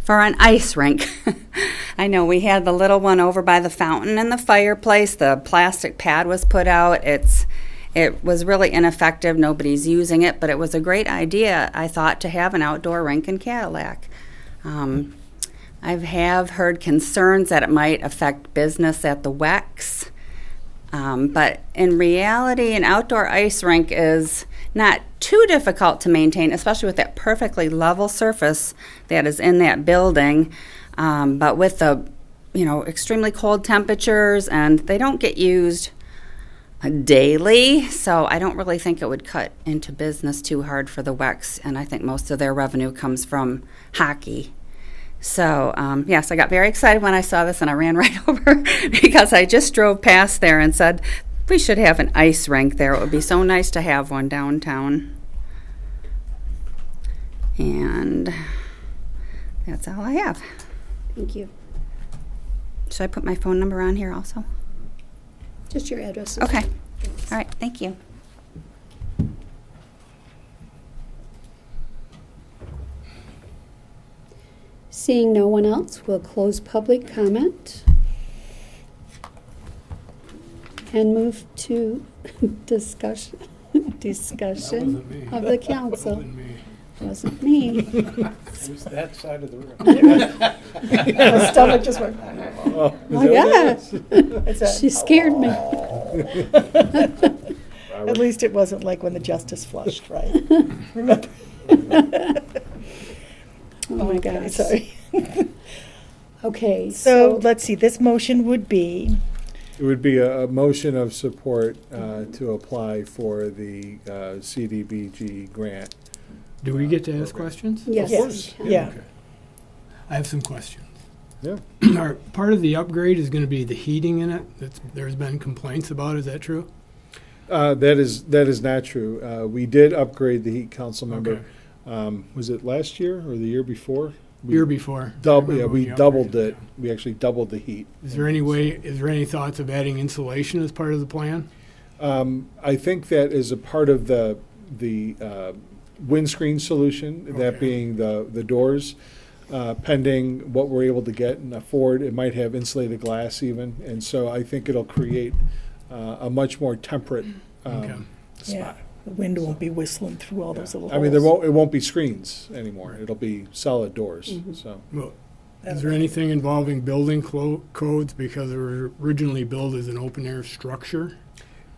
for an ice rink. I know we had the little one over by the fountain and the fireplace. The plastic pad was put out. It's it was really ineffective. Nobody's using it, but it was a great idea. I thought to have an outdoor rink in Cadillac. Um, I have heard concerns that it might affect business at the WEX. Um, but in reality, an outdoor ice rink is not too difficult to maintain, especially with that perfectly level surface that is in that building. Um, but with the you know extremely cold temperatures, and they don't get used daily, so I don't really think it would cut into business too hard for the Wex. And I think most of their revenue comes from hockey. So, um, yes, I got very excited when I saw this and I ran right over because I just drove past there and said, we should have an ice rink there. It would be so nice to have one downtown. And that's all I have. Thank you. Should I put my phone number on here also? Just your address. Okay. All right, thank you. Seeing no one else, we'll close public comment and move to discussion, discussion wasn't me. of the council. Wasn't me. Wasn't me. It was that side of the room. My stomach just went. Oh, yeah, It's a, she scared me. Oh at least it wasn't like when the justice flushed, right? Remember? Oh, my gosh. Sorry. Okay, So so, let's see. This motion would be It would be a, a motion of support uh, to apply for the uh, CDBG grant. Do we get to ask questions? Of yes. course. yeah. I have some questions. Yeah. Our, part of the upgrade is gonna be the heating in it, that's, there's been complaints about, is that true? Uh, that is that is not true. Uh, we did upgrade the heat council member. Okay. Um, was it last year or the year before? We Year before. Double, yeah, Remember we when you doubled upgraded it. We actually doubled the heat. Is there any way, is there any thoughts of adding insulation as part of the plan? Um, I think that is a part of the, the uh, windscreen solution, that Okay. being the, the doors. Uh, Pending what we're able to get and afford, it might have insulated glass even. And so I think it'll create uh, a much more temperate um, Okay. Yeah. spot. The wind won't be whistling through all those little I mean, there holes. won't, it won't be screens anymore. It'll be solid doors, Mm-hmm. so. Well, is there anything involving building clo- codes because it was originally built as an open air structure?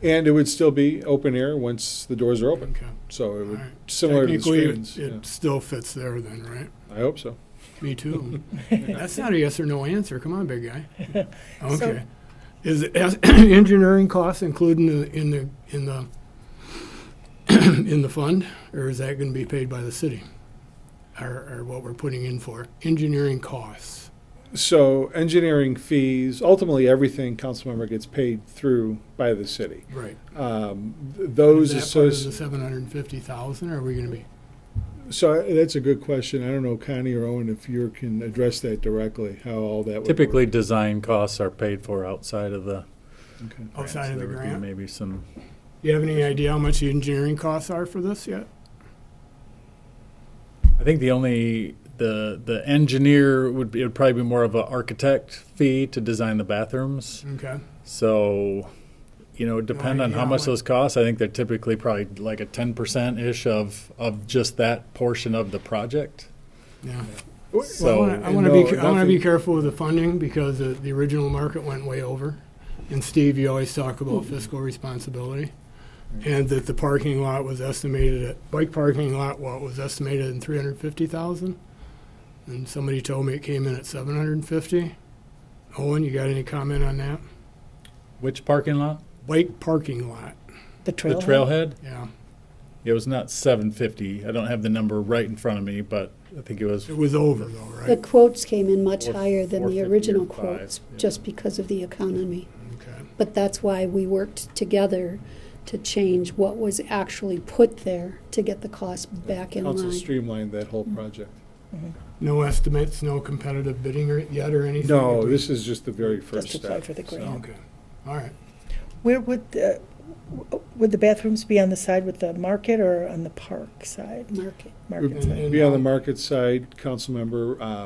And it would still be open air once the doors are open. Okay. So it All would, right. similar to the Technically, it- screens. yeah. It still fits there then, right? I hope so. Me too. That's not a yes or no answer. Come on, big guy. Okay. Is it- is engineering costs included in the, in the, in the, in the fund? Or is that gonna be paid by the city? Or, or what we're putting in for? Engineering costs. So engineering fees, ultimately everything council member gets paid through by the city. Right. Um, th- Is those that part of associ- the seven hundred and fifty thousand or are we gonna be? so I- that's a good question. I don't know, Connie or Owen, if you can address that directly, how all that would Typically, work. design costs are paid for outside of the. Okay. grant, Outside of so oh, the there would be grant? Maybe some, Do you have any idea how much the engineering costs are for this yet? I think the only, the, the engineer would be, it would probably be more of an architect fee to design the bathrooms. Okay. So, you know, depend on how idea. much those cost. I think they're typically probably like a ten percent-ish of, of just that portion of the project. Yeah. So- Well, I want to be, I want to be careful with the funding because the, the original market went way over. And Steve, you always talk about Hmm. fiscal responsibility. And that the parking lot was estimated at, bike parking lot, what was estimated in three hundred fifty thousand? And somebody told me it came in at seven hundred and fifty. Owen, you got any comment on that? Which parking lot? Bike parking lot, The The trail. trailhead? yeah. It was not seven fifty. I don't have the number right in front of me, but I think it was It was over though, The right? quotes came in much Four- higher than the 450 or original five, quotes, yeah. just because of the economy. Okay. But that's why we worked together to change what was actually put there to get the cost back in Council line. streamlined that whole project. Mm-hmm. No estimates, no competitive bidding or- yet or anything? No, this is just the very first Just apply step. for the grant. Okay, all right. Where would the, would the bathrooms be on the side with the market or on the park side? Market. Market And- side. and Be on the how- market side, council member, uh,